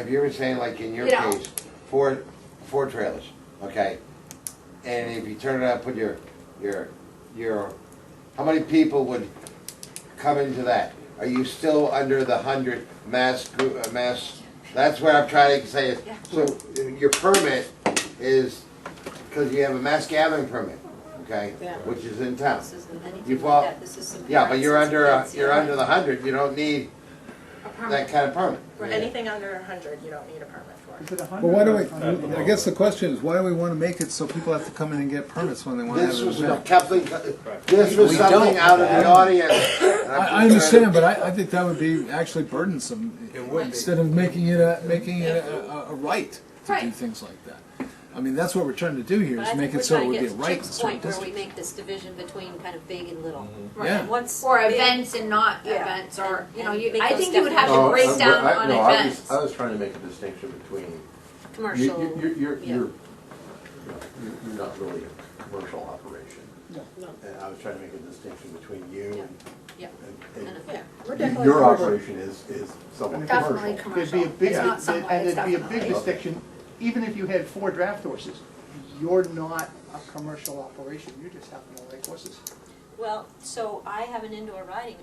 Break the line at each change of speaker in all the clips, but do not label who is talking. If you were saying like in your
You know.
case, four, four trailers, okay? And if you turn it up, put your, your, your, how many people would come into that? Are you still under the hundred mass, gr- uh, mass, that's what I'm trying to say is,
Yeah.
so uh, your permit is, cause you have a mass gathering permit, okay?
Yeah.
Which is in town.
This isn't
You
anything
fall-
like that, this is some.
Yeah, but you're
nonsense
under, a-
that's
you're
going
under
on.
the hundred, you don't need
A
that
permit.
kind of permit.
For anything under a hundred, you don't need a permit for.
Well, why do we, I guess the question is, why do we want to make it so people have to come in and get permits when they want to have
This
an
was
event?
something, this was
We
something
don't.
out of the audience. and I'm
I, I
just trying
understand,
to-
but I, I think that would be actually burdensome.
It would be.
Instead of making it a, making it a, a, a right to do
Right.
things like that. I mean, that's what we're trying to do here,
But I
is
think
make
we're
it so it
trying
would
to
be a
get to
right
Chip's
to certain
Point where we
districts.
make this division between kind of big and little.
Mm-hmm.
Right,
Yeah.
Once.
Or
big-
events and not
Yeah.
events, or, you know,
And
you,
make
I
those
think you would have
definitions.
to
No,
break
I'm-
down
I-
on
no, I was-
events.
I was trying to make a distinction between, you-
Commercial.
you- you're, you're,
yeah.
you're, you're- you're not really a commercial operation.
No.
And I was trying to make a distinction between you
Yeah.
and,
And-
Yeah, we're
and
definitely.
your operation is, is somewhat
Definitely
commercial.
There'd
commercial,
be a big,
it's not
and
somewhat,
there'd be a big
definitely.
distinction, even if you had four draft horses, you're not a commercial operation, you just happen to like horses.
Well, so I have an indoor riding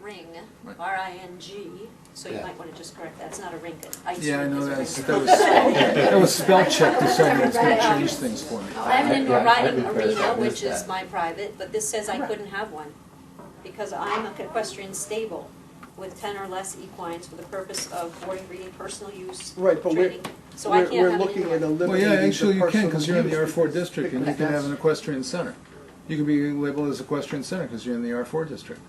ring,
Right.
R I N G, so you
Yeah.
might wanna just correct that, it's not a rink, an ice rink is a
Yeah, I
rink.
know, that's, that was, that was spell check to say it's gonna change things for me.
I have an indoor
Yeah, I
riding
think that's- I
arena,
missed
which is
that.
my private, but this says I couldn't have one, because I'm a equestrian stable with ten or less equines for the purpose of boarding, breeding, personal use,
Right, but we're-
training, so I can't have an indoor.
Well, yeah, actually you can, because you're in the R four district, and you can have an equestrian center. You could be labeled as equestrian center, because you're in the R four district.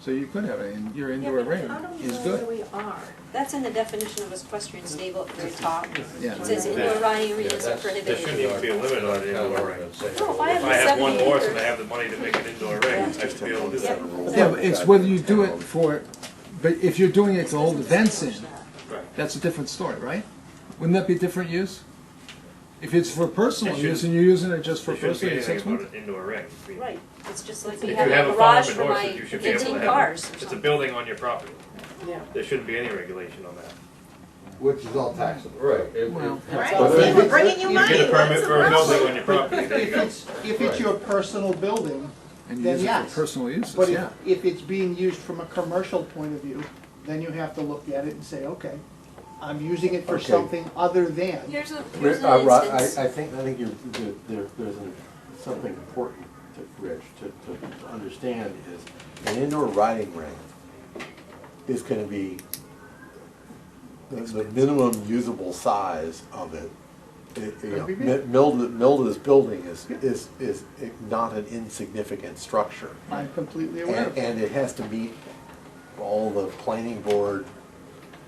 So you could have it, and your indoor arena is good.
we are?
That's in the definition of equestrian stable at the very top.
Yeah.
It says indoor riding arenas are
There shouldn't
prohibited.
even be a limit on it anymore.
No, if I
If I have
have
one
seventy
horse and
acres,
I have the money to make an indoor ring, I should be able to do that.
Yeah, but it's whether you do it for, but if you're doing it to hold events in, that's a different story, right? Wouldn't that be different use? If it's for personal
It
use,
shouldn't-
and you're using it just for
There shouldn't be
personal use,
anything
that's
about
one.
an indoor ring. I mean,
right, it's just like
If
we
you
have a
have a farm
garage
and
for my
horses, you should be able
fifteen
to have,
cars or
it. it's a
something.
building on your property.
Yeah.
There shouldn't be any regulation on that.
Which is all taxable.
Right. it-
Well,
Right, see, we're bringing you money,
You get a
what's
permit
the
for a building
problem?
on your property, there you
If
go.
it's, if it's your personal building,
and
Then
use it
yes.
for personal
but
uses,
if,
yeah.
if it's being used from a commercial point of view, then you have to look at it and say, okay, I'm using it for
Okay.
something other than.
Here's a,
Ri-
here's
uh,
an
Rod,
instance.
I, I think, I think you're, there- there, there's an- something important to, Rich, to, to understand is an indoor riding ring is gonna be, the, the minimum usable size of it. it- you know,
Could be
Mi-
big.
Milda, Milda's building is, is, is not an insignificant structure.
I'm completely aware of
And,
it.
and it has to meet all the planning board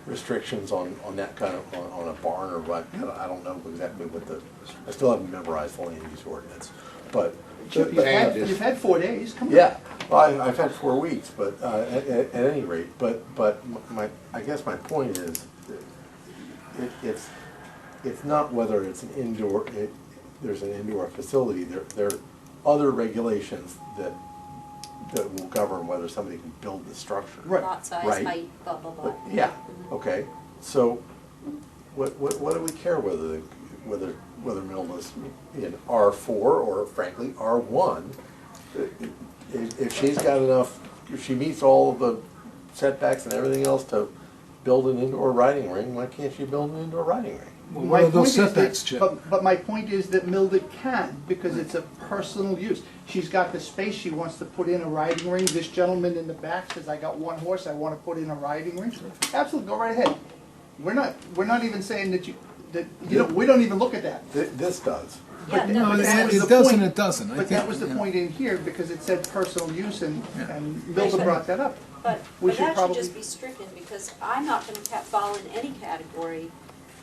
restrictions on, on that kind of, on, on a barn or what, I don't- I don't know exactly what the, I still haven't memorized the land use ordinance, but,
Chip, you've had,
Changes.
you've had four days, come on.
yeah. Well, I, I've had four weeks, but, uh, at, at at any rate, but, but my, I guess my point is, it, it's, it's not whether it's an indoor, it, there's an indoor facility, there, there are other regulations that, that will govern whether somebody can build the structure.
Right.
lot size,
Right.
height, blah, blah, blah.
But, Yeah, okay, so what, what, what do we care whether, the- whether, whether Milda's in R four or frankly, R one? If, if she's got enough, if she meets all of the setbacks and everything else to build an indoor riding ring, why can't she build an indoor riding ring?
Well,
My
what are those
point is that-
setbacks, Chip?
But, but my point is that Milda can, because it's a personal use. She's got the space, she wants to put in a riding ring. This gentleman in the back says, I got one horse, I wanna put in a riding ring. Absolutely, go right ahead. We're not, we're not even saying that you, that, you know, we don't even look at that.
Th- This does.
Yeah, no,
No,
but
it
that
was the
it does and
point.
it doesn't. I
But
think,
that was the
yeah.
point in here, because it said personal use and,
Yeah.
and Milda brought that up.
But,
We
but
should
that should just
probably-
be stricken, because I'm not gonna ca- fall in any category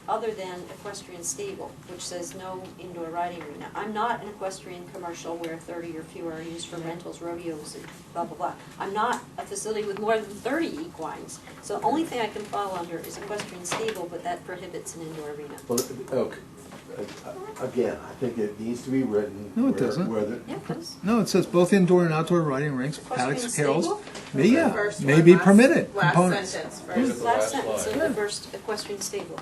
other than equestrian stable, which says no indoor riding arena. I'm not an equestrian commercial where thirty or fewer are used for rentals, rodeos, and blah, blah, blah. I'm not a facility with more than thirty equines, so the only thing I can fall under is equestrian stable, but that prohibits an indoor arena.
Well, okay, Uh, again, I think it needs to be written.
No, it
where-
doesn't.
Where the,
Yeah, because
No, it says both indoor and outdoor riding rinks, paddocks,
Equestrian
hills,
stable?
may, yeah,
First
may
one,
be
last-
permitted
Last
components.
sentence, first.
Look at the
last
last
sentence
slide.
of the first equestrian stable.